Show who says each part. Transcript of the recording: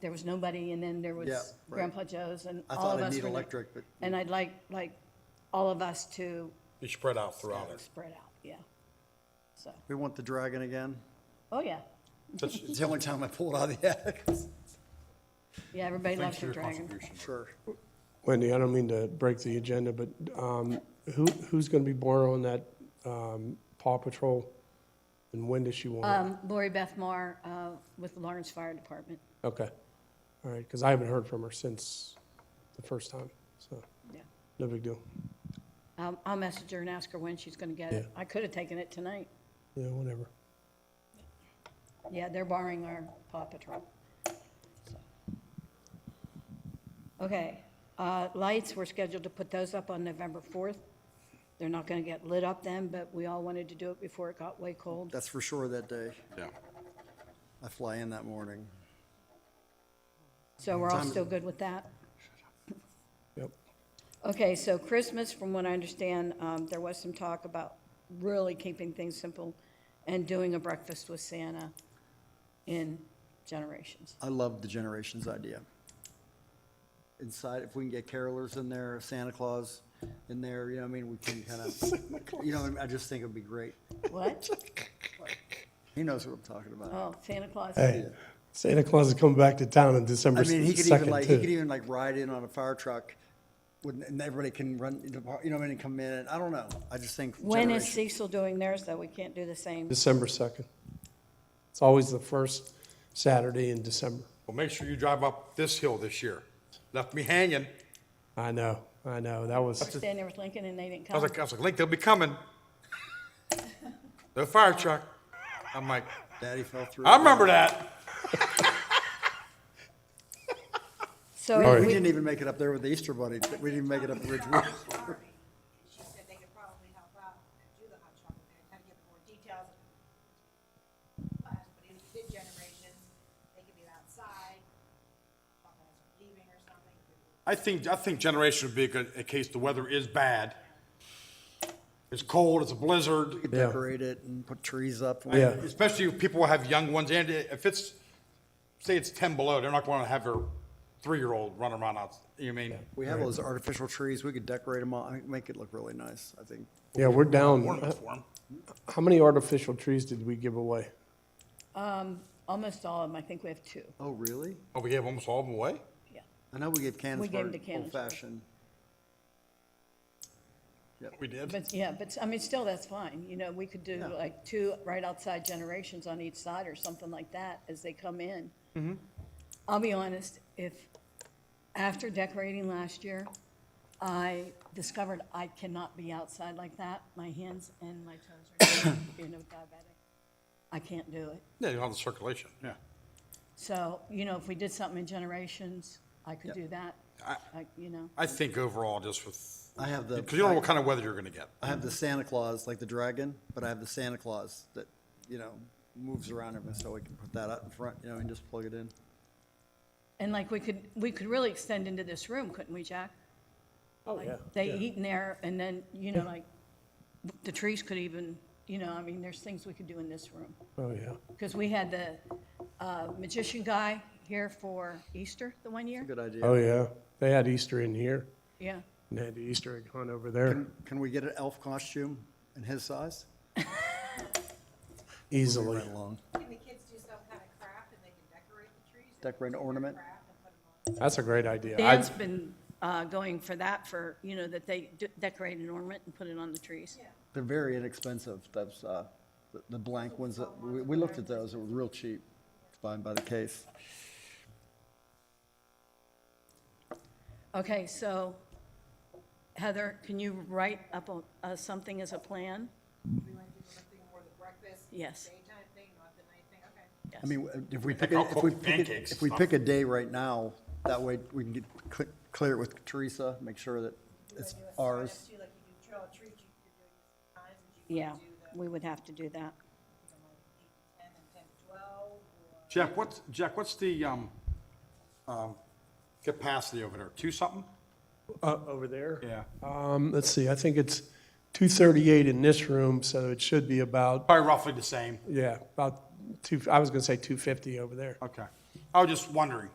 Speaker 1: there was nobody, and then there
Speaker 2: Yeah,
Speaker 1: was
Speaker 2: right.
Speaker 1: Grandpa Joe's, and
Speaker 2: I
Speaker 1: all
Speaker 2: thought
Speaker 1: of
Speaker 2: I'd
Speaker 1: us
Speaker 2: need
Speaker 1: were. the-
Speaker 2: electric, but-
Speaker 1: And I'd like, like, all of us to
Speaker 3: Be spread out throughout it.
Speaker 1: spread out, yeah. So,
Speaker 2: We want the dragon again.
Speaker 1: oh, yeah,
Speaker 3: That's-
Speaker 2: It's the only time I pulled out of the attic.
Speaker 1: yeah, everybody
Speaker 3: Thanks
Speaker 1: loves
Speaker 3: for
Speaker 1: the
Speaker 3: your
Speaker 1: dragon.
Speaker 3: contribution.
Speaker 2: Sure.
Speaker 4: Wendy, I don't mean to break the agenda, but um, who, who's going to be borrowing that um, Paw Patrol? And when does she want
Speaker 1: Um, Lori Beth Moore, uh, with the Lawrence Fire Department,
Speaker 2: Uh.
Speaker 4: it? Okay. All right, because I haven't heard from her since the first time, so
Speaker 1: yeah.
Speaker 4: no big deal.
Speaker 1: Um, I'll message her and ask her when she's gonna get it.
Speaker 4: Yeah.
Speaker 1: I could have taken it tonight.
Speaker 4: Yeah, whatever.
Speaker 1: Yeah, they're borrowing our Paw Patrol. So. Okay, uh, lights, we're scheduled to put those up on November 4th. They're not going to get lit up then, but we all wanted to do it before it got way cold.
Speaker 2: That's for sure that day.
Speaker 3: Yeah.
Speaker 2: I fly in that morning.
Speaker 1: So we're all
Speaker 2: Time-
Speaker 1: still good with that?
Speaker 4: Yep.
Speaker 1: Okay, so Christmas, from what I understand, um, there was some talk about really keeping things simple and doing a breakfast with Santa in Generations.
Speaker 2: I love the Generations idea. Inside, if we can get carolers in there, Santa Claus in there, you know, what I mean, we can kind of, you know, I just think it'd be great.
Speaker 1: What?
Speaker 2: He knows what I'm talking about.
Speaker 1: Oh, Santa Claus.
Speaker 4: Hey, Santa Claus is coming back to town on
Speaker 1: Oh.
Speaker 4: December
Speaker 2: I mean, he could even
Speaker 4: second
Speaker 2: like, he could
Speaker 4: too.
Speaker 2: even like ride in on a fire truck with, and everybody can run, you know what I mean, and come in. and I don't know. I just think.
Speaker 1: When is
Speaker 2: Generations-
Speaker 1: Cecil doing theirs, though? We can't do the same.
Speaker 4: December second. It's always the first Saturday in December.
Speaker 3: Well, make sure you drive up this hill this year. Left me hanging.
Speaker 4: I know, I know. That was.
Speaker 1: Standing there with Lincoln and they didn't
Speaker 3: I
Speaker 1: come.
Speaker 3: was like, I was like, Link, they'll be coming. The fire truck. I'm like,
Speaker 2: Daddy fell through.
Speaker 3: I remember that.
Speaker 1: So
Speaker 2: We
Speaker 1: we-
Speaker 2: didn't even make it up there with the Easter Bunny. We didn't make it up Ridgewood.
Speaker 5: Sorry. She said they could probably help out and do the hot chocolate and kind of get more details. But but if you did generations, they could be outside, while guys are leaving or something.
Speaker 3: I think, I think generation would be a good, in case the weather is bad. It's cold, it's a blizzard.
Speaker 2: could
Speaker 4: Yeah.
Speaker 2: decorate it and put trees up.
Speaker 4: Yeah.
Speaker 3: Especially if people have young ones, and if it's, say it's ten below, they're not gonna have their three-year-old run around out, you know what I mean?
Speaker 2: We have all those artificial trees. We could decorate them all, I think, make it look really nice, I think.
Speaker 4: Yeah, we're down.
Speaker 3: Ornaments for 'em.
Speaker 4: How many artificial trees did we give away?
Speaker 1: almost all of them, I think we have two,
Speaker 2: Oh, really?
Speaker 3: Oh, we gave almost all of them away?
Speaker 1: yeah.
Speaker 2: I know we gave
Speaker 1: We gave 'em to
Speaker 2: Candace
Speaker 1: Candace.
Speaker 2: old fashioned.
Speaker 3: We did?
Speaker 1: But, yeah, but, I mean, still, that's fine, you know, we could do
Speaker 2: Yeah.
Speaker 1: like two right outside generations on each side or something like that as they come in.
Speaker 3: Mm-hmm.
Speaker 1: I'll be honest, if, after decorating last year, I discovered I cannot be outside like that, my hands and my toes are, you know, diabetic. I can't do it.
Speaker 3: Yeah, you don't have the circulation, yeah.
Speaker 1: So, you know, if we did something in generations, I could do that, like, you know.
Speaker 3: I think overall, just with,
Speaker 2: I have the,
Speaker 3: because you don't know what kind of weather you're gonna get.
Speaker 2: I have the Santa Claus, like the dragon, but I have the Santa Claus that, you know, moves around him, so we can put that out in front, you know, and just plug it in.
Speaker 1: And like, we could, we could really extend into this room, couldn't we, Jack?
Speaker 4: Oh,
Speaker 1: Like, They eat in there, and then, you know, like, the trees could even, you know, I mean, there's things we could do in this room.
Speaker 4: Oh, yeah.
Speaker 1: Because we had the uh, magician guy here for Easter the one year,
Speaker 2: Good
Speaker 4: Oh,
Speaker 2: idea.
Speaker 4: yeah. They had Easter in here
Speaker 1: yeah.
Speaker 4: and they had the Easter egg hunt over there
Speaker 2: Can we get an elf costume in his size? Moving
Speaker 4: easily.
Speaker 2: right along.
Speaker 5: Can the kids do some kind of craft and they can decorate the trees? They
Speaker 2: Decorate an
Speaker 5: can do their
Speaker 2: ornament.
Speaker 5: Craft and put 'em on.
Speaker 4: That's a great idea. I,
Speaker 1: Dan's been uh, going for that for, you know, that they d- decorate an ornament and put it on the trees.
Speaker 2: They're very inexpensive, those, uh, the- the blank ones that, we, we looked at those, they were real cheap, buying by the case.
Speaker 1: Okay, so Heather, can you write up a- uh, something as a plan?
Speaker 5: We want to do something more the breakfast.
Speaker 1: Yes.
Speaker 5: Daytime thing, not the night thing, okay.
Speaker 2: I mean, if we pick, a- if we pick, a-
Speaker 3: pancakes.
Speaker 2: if we pick a day right now, that way we can get, cl- clear it with Teresa, make sure that it's
Speaker 5: Do a sign up
Speaker 2: ours.
Speaker 5: too, Like you do trail of treats, you- you're doing this times and you
Speaker 1: Yeah,
Speaker 5: want to do the,
Speaker 1: we would have to do that.
Speaker 5: you know, like eight to ten and ten to twelve or.
Speaker 3: Jack, what's, Jack, what's the, um, um, capacity over there? Two something?
Speaker 4: uh, over there?
Speaker 3: Yeah.
Speaker 4: Um, let's see. I think it's 238 in this room, so it should be about,
Speaker 3: Probably roughly the same.
Speaker 4: yeah, about two, I was going to say 250 over there.
Speaker 3: Okay. I was just wondering.